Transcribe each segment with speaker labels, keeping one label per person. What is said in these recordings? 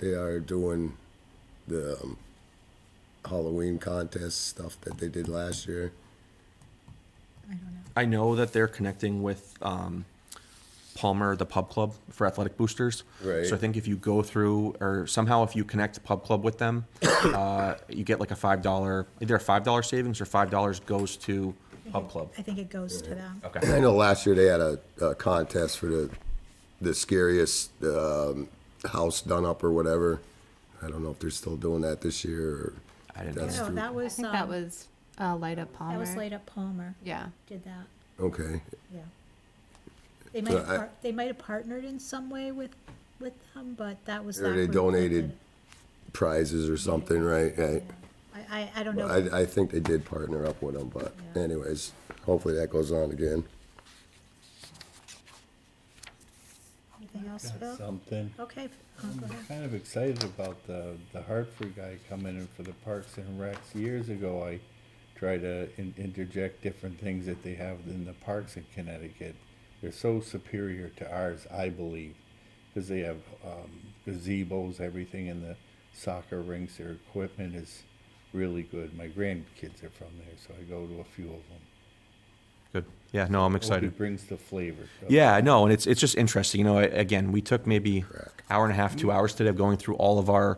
Speaker 1: They are doing the um, Halloween contest stuff that they did last year.
Speaker 2: I don't know.
Speaker 3: I know that they're connecting with um, Palmer, the pub club for athletic boosters.
Speaker 1: Right.
Speaker 3: So I think if you go through or somehow if you connect pub club with them, uh, you get like a five dollar either a five dollar savings or five dollars goes to pub club.
Speaker 2: I think it goes to them.
Speaker 3: Okay.
Speaker 1: I know last year they had a, a contest for the the scariest um, house done up or whatever. I don't know if they're still doing that this year. Or
Speaker 3: I didn't know
Speaker 1: that's
Speaker 2: No,
Speaker 1: through-
Speaker 2: Oh, that
Speaker 4: I
Speaker 2: was,
Speaker 4: think that
Speaker 2: um,
Speaker 4: was uh, Light Up Palmer.
Speaker 2: that was laid up Palmer.
Speaker 4: Yeah.
Speaker 2: Did that,
Speaker 1: Okay,
Speaker 2: yeah. They might have,
Speaker 1: I-
Speaker 2: par- they might have partnered in some way with, with them, but that was.
Speaker 1: Or
Speaker 2: that
Speaker 1: they
Speaker 2: group that
Speaker 1: donated
Speaker 2: did it.
Speaker 1: prizes or something, right? right.
Speaker 2: I, I, I don't know.
Speaker 1: I, I think they did partner up with them, but
Speaker 2: Yeah.
Speaker 1: anyways, hopefully that goes on again.
Speaker 2: Anything else,
Speaker 5: Got
Speaker 2: Bill?
Speaker 5: Something.
Speaker 2: Okay, uh, go
Speaker 5: I'm
Speaker 2: ahead.
Speaker 5: kind of excited about the, the Hartford guy coming in for the Parks and Recs. Years ago, I try to in, interject different things that they have in the parks in Connecticut. They're so superior to ours, I believe, because they have um, gazebos, everything in the soccer rinks. Their equipment is really good. My grandkids are from there, so I go to a few of them.
Speaker 3: Good. Yeah. No, I'm excited.
Speaker 5: It brings the flavor. to it.
Speaker 3: Yeah, no, and it's it's just interesting. You know, I- again, we took maybe hour and a half,
Speaker 5: Mm-hmm.
Speaker 3: two hours today of going through all of our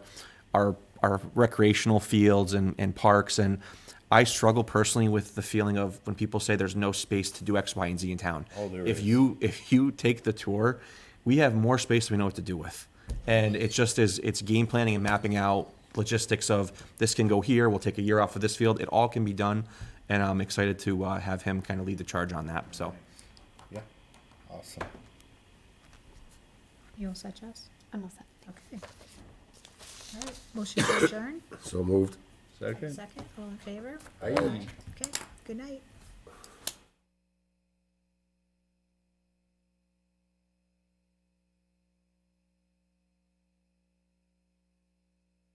Speaker 3: our our recreational fields and, and parks and I struggle personally with the feeling of when people say there's no space to do X, Y, and Z in town.
Speaker 5: Oh, there
Speaker 3: if
Speaker 5: is.
Speaker 3: you if you take the tour, we have more space than we know what to do with. And it's just is it's game planning and mapping out logistics of this can go here, we'll take a year off of this field. It all can be done. And I'm excited to uh, have him kind of lead the charge on that. So
Speaker 5: Yeah. Awesome.
Speaker 2: You all set, Jess?
Speaker 4: I'm all set.
Speaker 2: Okay. All right, motion to adjourn,
Speaker 1: So moved.
Speaker 5: Second?
Speaker 2: second, all in favor?
Speaker 1: Aye.
Speaker 2: Okay, good night.